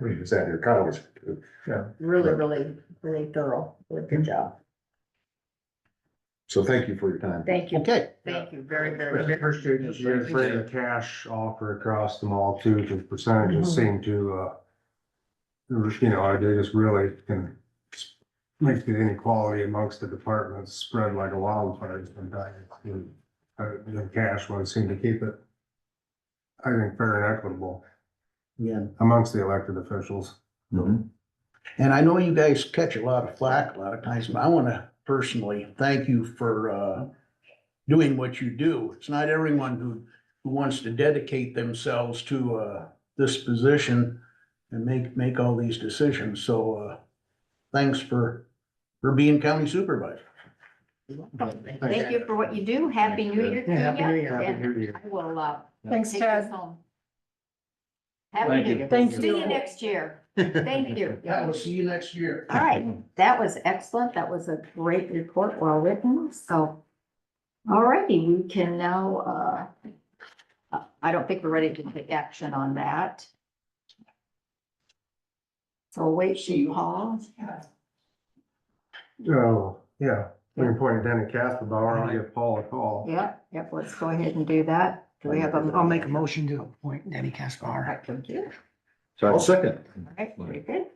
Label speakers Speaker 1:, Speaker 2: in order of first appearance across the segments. Speaker 1: I mean, it's at your college.
Speaker 2: really,
Speaker 1: Right.
Speaker 2: really, really thorough with your job.
Speaker 1: So thank you for your time.
Speaker 2: Thank you,
Speaker 3: Okay.
Speaker 2: thank you very, very much.
Speaker 4: Her students, you have a cash offer across them all too, because
Speaker 2: Mm-hmm.
Speaker 4: percentages seem to, uh, you know, they just really can make the inequality amongst the departments spread like a wildfire sometimes. And, Uh, the cash ones seem to keep it, I think, fair and equitable
Speaker 3: Yeah,
Speaker 4: amongst the elected officials.
Speaker 1: Mhm.
Speaker 3: and I know you guys catch a lot of flack a lot of times, but I wanna personally thank you for, uh, doing what you do. It's not everyone who, who wants to dedicate themselves to, uh, this position and make, make all these decisions, so, uh, thanks for, for being county supervisor.
Speaker 2: Thank you for what you do. Happy New Year to you. And I will, uh,
Speaker 5: Thanks,
Speaker 2: take this
Speaker 5: Ted.
Speaker 2: home. Happy New Year.
Speaker 5: Thank
Speaker 2: See you
Speaker 5: you.
Speaker 2: next year. Thank you.
Speaker 3: Yeah, we'll see you next year.
Speaker 2: All right, that was excellent. That was a great report, well written, so. All righty, we can now, uh, I don't think we're ready to take action on that. So wait, she calls.
Speaker 4: Oh, yeah, we can point it down at Castabauer, I'll give Paul a call.
Speaker 2: Yep, yep, let's go ahead and do that. Do we have a?
Speaker 5: I'll make a motion to appoint Debbie Caspar.
Speaker 2: Alright, thank you.
Speaker 1: I'll second.
Speaker 2: Alright, very good.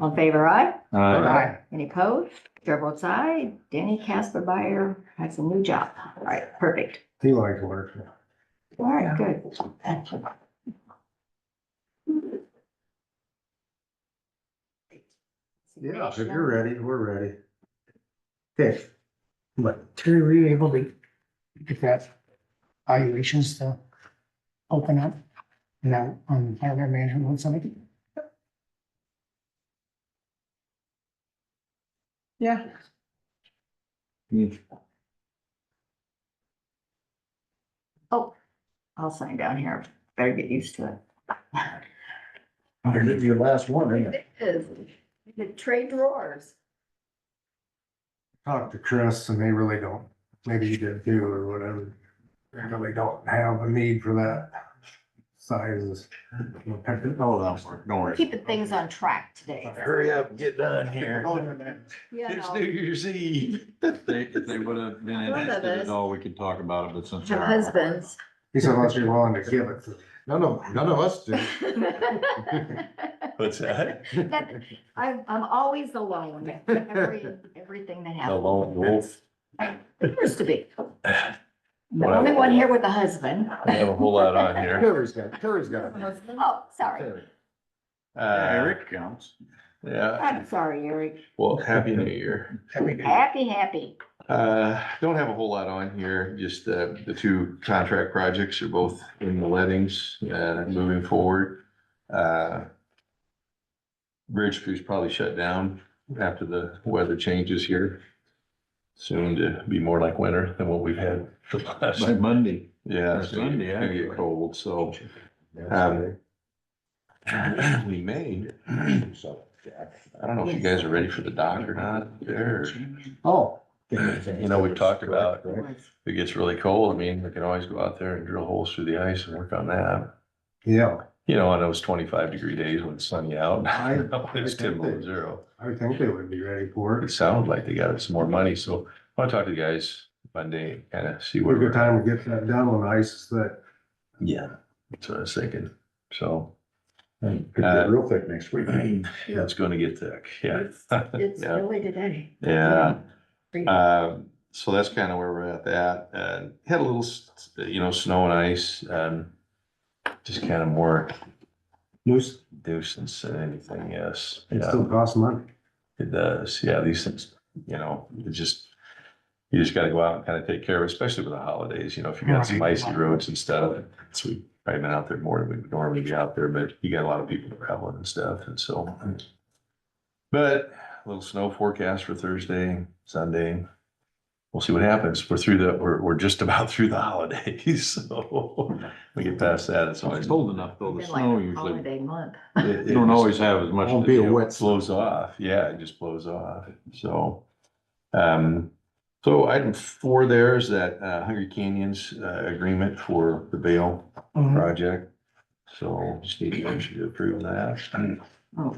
Speaker 2: All in favor, aye?
Speaker 1: Aye.
Speaker 2: Any opposed? Chair votes aye. Danny Casper Buyer has a new job. Alright, perfect.
Speaker 4: He likes working.
Speaker 2: Alright, good.
Speaker 4: Yeah, if you're ready, we're ready. Okay,
Speaker 5: But Terry, were you able to get that valuations to open up? Now, on the hardware management website? Yeah.
Speaker 2: I'll sign down here. Better get used to it.
Speaker 1: Your last one, ain't it?
Speaker 2: The trade drawers.
Speaker 4: talk to Chris and they really don't, maybe you did too or whatever. They really don't have a need for that sizes.
Speaker 1: Oh, that's, don't worry.
Speaker 2: Keeping things on track today.
Speaker 1: Hurry up, and get done here.
Speaker 2: You
Speaker 6: It's
Speaker 2: know.
Speaker 6: New Year's Eve. If they, if they would have been
Speaker 2: One of
Speaker 6: interested
Speaker 2: us.
Speaker 6: at all, we could talk about it, but since.
Speaker 2: Have
Speaker 6: they're-
Speaker 2: husbands.
Speaker 4: He said unless you're willing to give it to them.
Speaker 1: None of, none of us do.
Speaker 6: What's that?
Speaker 2: That- I'm, I'm always alone, every, everything that
Speaker 6: The
Speaker 2: happens.
Speaker 6: lone wolf.
Speaker 2: Appears to be.
Speaker 6: I
Speaker 2: The only one here with a husband.
Speaker 6: have a whole lot on here.
Speaker 1: Terry's got, Terry's got. it.
Speaker 2: Oh, sorry.
Speaker 6: Eric counts. Uh, Yeah,
Speaker 2: I'm sorry, Eric.
Speaker 6: well, happy new year.
Speaker 2: Happy, happy.
Speaker 6: Uh, don't have a whole lot on here, just uh the two contract projects are both in the lettings, uh, moving forward. Uh, Bridge crew's probably shut down after the weather changes here. Soon to be more like winter than what we've had the last.
Speaker 7: By Monday.
Speaker 6: Yeah, it's gonna
Speaker 7: Sunday,
Speaker 6: gonna
Speaker 7: actually.
Speaker 6: get cold, so um,
Speaker 1: That's
Speaker 6: we may,
Speaker 1: right. So, yeah.
Speaker 6: I don't know if you guys are ready for the dock or not, there.
Speaker 4: Oh,
Speaker 6: You know, we've talked about, if it gets really cold, I mean, we can always go out there and drill holes through the ice and work on that.
Speaker 4: yeah,
Speaker 6: You know, on those twenty-five degree days when it's sunny out,
Speaker 4: I-
Speaker 6: it's ten below zero.
Speaker 4: I think they would be ready for
Speaker 6: It
Speaker 4: it.
Speaker 6: sounded like they got us some more money, so I wanna talk to the guys Monday, kind of see
Speaker 4: What
Speaker 6: where.
Speaker 4: a good
Speaker 6: we're at.
Speaker 4: time to get that done when ice is that.
Speaker 6: Yeah, that's what I was thinking, so.
Speaker 1: Could get real thick next week.
Speaker 6: Yeah, it's gonna get thick, yeah.
Speaker 2: It's it's
Speaker 6: Yeah.
Speaker 2: really today.
Speaker 6: Yeah, Um, so that's kind of where we're at that, and had a little, s- you know, snow and ice, um, just kind of more
Speaker 4: Loose,
Speaker 6: nuisance than anything, yes.
Speaker 4: it
Speaker 6: Yeah,
Speaker 4: still costs money.
Speaker 6: it does, yeah, these things, you know, it just, you just gotta go out and kind of take care of, it, especially with the holidays, you know, if you got some icy roads and stuff. So we've probably been out there more than we'd normally be out there, but you got a lot of people traveling and stuff, and so. But a little snow forecast for Thursday, Sunday. We'll see what happens. We're through the, we're, we're just about through the holidays, so we get past that, it's always.
Speaker 7: It's cold enough though, the
Speaker 2: It's
Speaker 7: snow
Speaker 2: been like a
Speaker 7: usually,
Speaker 2: holiday month.
Speaker 6: it-
Speaker 7: you
Speaker 6: it
Speaker 7: don't
Speaker 6: just-
Speaker 7: always have as much.
Speaker 1: Won't
Speaker 7: to
Speaker 1: be a
Speaker 7: deal with.
Speaker 1: wet
Speaker 6: blows off. Yeah, it just blows off. So, um, so item four there is that uh, Hungry Canyons uh, agreement for the bail
Speaker 5: Mhm.
Speaker 6: project. So just need a motion to approve that.
Speaker 5: Oh,